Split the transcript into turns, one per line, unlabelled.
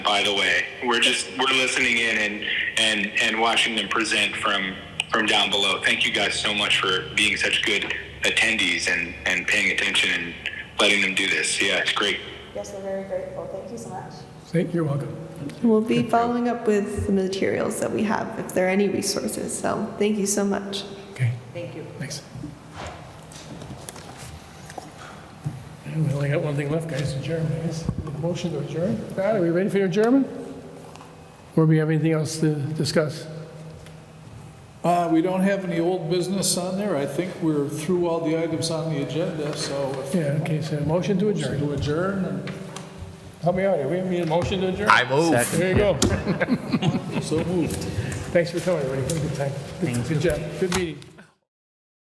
by the way. We're just we're listening in and and and watching them present from from down below. Thank you guys so much for being such good attendees and and paying attention and letting them do this. Yeah, it's great.
Yes, we're very grateful. Thank you so much.
Thank, you're welcome.
We'll be following up with the materials that we have, if there are any resources. So thank you so much.
Okay,
Thank you.
thanks. And we only got one thing left, guys, adjournment, I guess. Motion to adjourn. Pat, are we ready for your adjournment? Or do we have anything else to discuss?
Uh, We don't have any old business on there. I think we're through all the items on the agenda, so if
Yeah, okay, so motion to
you
adjourn.
do adjourn, and
Help me out here, we need a motion to adjourn?
I move.
There you go.
so moved.
Thanks for coming, everybody, Have a good time. Good- Good job, good meeting.